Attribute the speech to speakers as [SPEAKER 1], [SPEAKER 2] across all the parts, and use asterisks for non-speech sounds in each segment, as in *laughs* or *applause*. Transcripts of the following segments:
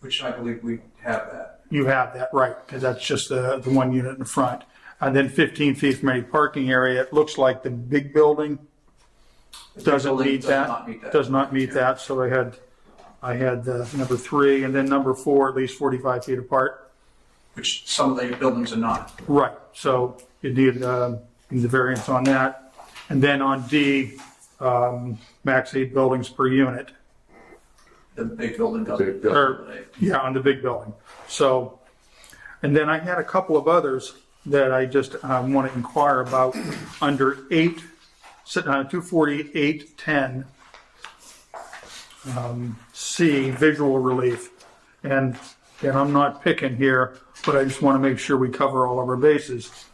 [SPEAKER 1] which I believe we have that.
[SPEAKER 2] You have that, right, because that's just the, the one unit in front. And then 15 feet from any parking area, it looks like the big building doesn't
[SPEAKER 1] building
[SPEAKER 2] meet
[SPEAKER 1] does not meet
[SPEAKER 2] that.
[SPEAKER 1] that.
[SPEAKER 2] Does not meet that, so I had, I had uh, number three, and then number four, at least 45 feet apart.
[SPEAKER 1] Which some of the buildings are not.
[SPEAKER 2] Right, so you need, um, you need the variance on that. And then on D, um, max eight buildings per unit.
[SPEAKER 1] The big building
[SPEAKER 3] Big
[SPEAKER 1] doesn't.
[SPEAKER 3] building.
[SPEAKER 2] or, yeah, on the big building. So, and then I had a couple of others that I just want to inquire about under eight, uh, two forty-eight ten. um, C, visual relief. And, and I'm not picking here, but I just want to make sure we cover all of our bases.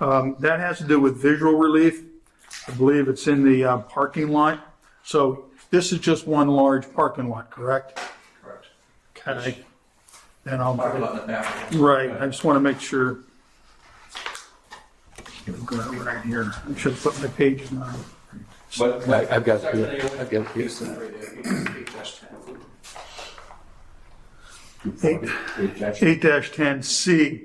[SPEAKER 2] Um, That has to do with visual relief. I believe it's in the uh, parking lot. So this is just one large parking lot, correct?
[SPEAKER 1] Correct.
[SPEAKER 2] Okay. Then
[SPEAKER 1] Parking
[SPEAKER 2] I'll,
[SPEAKER 1] lot in the back.
[SPEAKER 2] right, I just want to make sure. Here we go, Right here, I should put my pages on.
[SPEAKER 1] But,
[SPEAKER 3] I- I've got it
[SPEAKER 1] Section
[SPEAKER 3] here.
[SPEAKER 1] A1,
[SPEAKER 3] I've got it here.
[SPEAKER 1] piece of three there, eight- eight dash ten.
[SPEAKER 2] Eight. Eight ten C.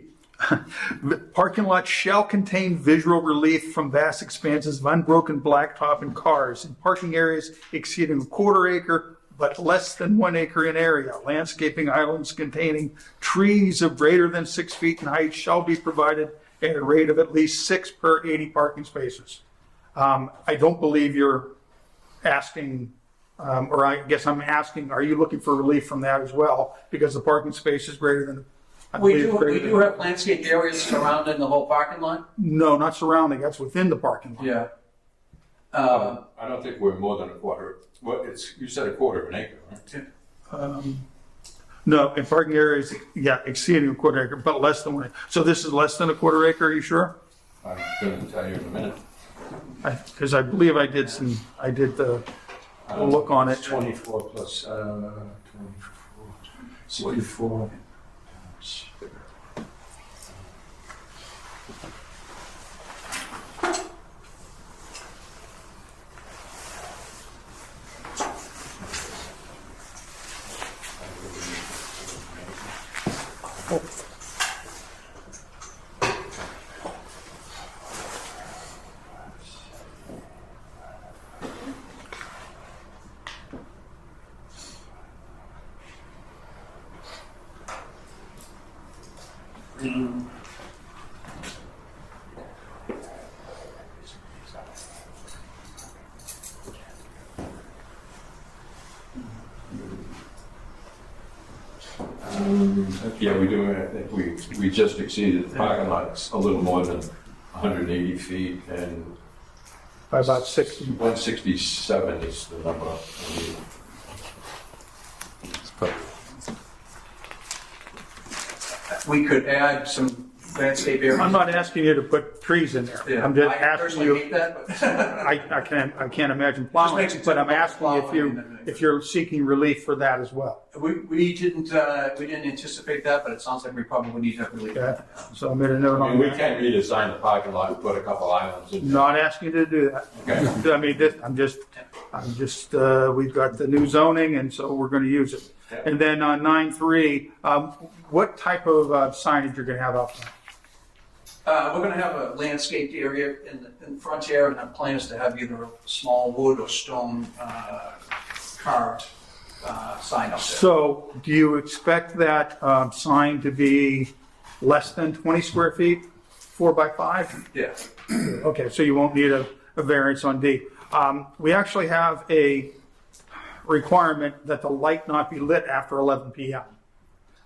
[SPEAKER 2] Parking lot shall contain visual relief from vast expanses of unbroken blacktop and cars in parking areas exceeding a quarter acre but less than one acre in area. Landscaping islands containing trees of greater than six feet in height shall be provided at a rate of at least six per eighty parking spaces. Um, I don't believe you're asking um, or I guess I'm asking, are you looking for relief from that as well? Because the parking space is greater than. I
[SPEAKER 1] We
[SPEAKER 2] believe
[SPEAKER 1] do,
[SPEAKER 2] greater
[SPEAKER 1] we
[SPEAKER 2] than-
[SPEAKER 1] do have landscaped areas surrounding the whole parking lot?
[SPEAKER 2] No, not surrounding, that's within the parking lot.
[SPEAKER 1] Yeah.
[SPEAKER 3] Um,
[SPEAKER 1] Uh,
[SPEAKER 4] I don't think we're more than a quarter, well, it's, you said a quarter of an acre, right?
[SPEAKER 2] No, in parking areas, yeah, exceeding a quarter acre, but less than one. So this is less than a quarter acre, are you sure?
[SPEAKER 4] I'm gonna tell you in a minute.
[SPEAKER 2] Because I believe I did some, I did the a look on it.
[SPEAKER 4] Twenty-four plus, uh, twenty-four, sixty-four. Yeah, we do, I think we, we just exceeded the parking lots a little more than hundred and eighty feet and
[SPEAKER 2] by about sixty.
[SPEAKER 4] one sixty-seven is the number. I mean,
[SPEAKER 1] we could add some landscape areas.
[SPEAKER 2] I'm not asking you to put trees in there.
[SPEAKER 1] Yeah,
[SPEAKER 2] I'm just
[SPEAKER 1] I
[SPEAKER 2] asking
[SPEAKER 1] personally
[SPEAKER 2] you.
[SPEAKER 1] hate that, but
[SPEAKER 2] I, I can't, I can't imagine plowing,
[SPEAKER 1] makes it
[SPEAKER 2] but I'm asking
[SPEAKER 1] difficult
[SPEAKER 2] if you,
[SPEAKER 1] plowing.
[SPEAKER 2] if you're seeking relief for that as well.
[SPEAKER 1] *laughs* we, we didn't, uh, we didn't anticipate that, but it sounds like we probably need that relief.
[SPEAKER 2] Okay, so I made a note
[SPEAKER 4] I
[SPEAKER 2] on
[SPEAKER 4] mean, we
[SPEAKER 2] that.
[SPEAKER 4] can't redesign the parking lot and put a couple islands in.
[SPEAKER 2] Not asking you to do that.
[SPEAKER 4] Okay.
[SPEAKER 2] I mean, this, I'm just, I'm just, uh, we've got the new zoning and so we're gonna use it.
[SPEAKER 4] Yeah.
[SPEAKER 2] And then on nine three, um, what type of uh, signage you're gonna have up there?
[SPEAKER 1] Uh, we're gonna have a landscaped area in the, in the front area, and our plan is to have either a small wood or stone, uh, carved, uh, sign up there.
[SPEAKER 2] So do you expect that, um, sign to be less than twenty square feet, four by five?
[SPEAKER 1] Yeah,
[SPEAKER 2] Okay, so you won't need a, a variance on D. Um, we actually have a requirement that the light not be lit after eleven PM.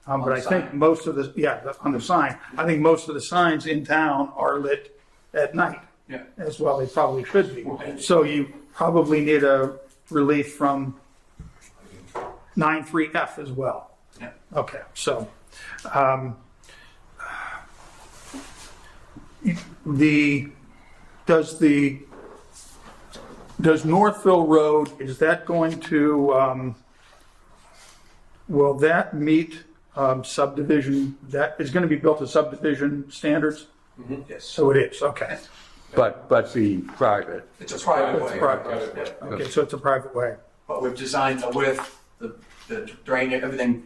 [SPEAKER 2] Um, but
[SPEAKER 1] On
[SPEAKER 2] I
[SPEAKER 1] the
[SPEAKER 2] think
[SPEAKER 1] sign.
[SPEAKER 2] most of the, yeah, the- on the sign, I think most of the signs in town are lit at night
[SPEAKER 1] yeah.
[SPEAKER 2] as well, they probably should be.
[SPEAKER 1] Okay.
[SPEAKER 2] So you probably need a relief from nine three F as well.
[SPEAKER 1] Yeah.
[SPEAKER 2] Okay, so, um, the, does the, does Northville Road, is that going to, um, will that meet um, subdivision, that is gonna be built to subdivision standards?
[SPEAKER 1] Yes,
[SPEAKER 2] So it is, okay.
[SPEAKER 3] But, but be private.
[SPEAKER 1] it's a private way.
[SPEAKER 2] Private.
[SPEAKER 4] Private way.
[SPEAKER 1] Yeah.
[SPEAKER 2] Okay, so it's a private way.
[SPEAKER 1] But we've designed the width, the, the drain, everything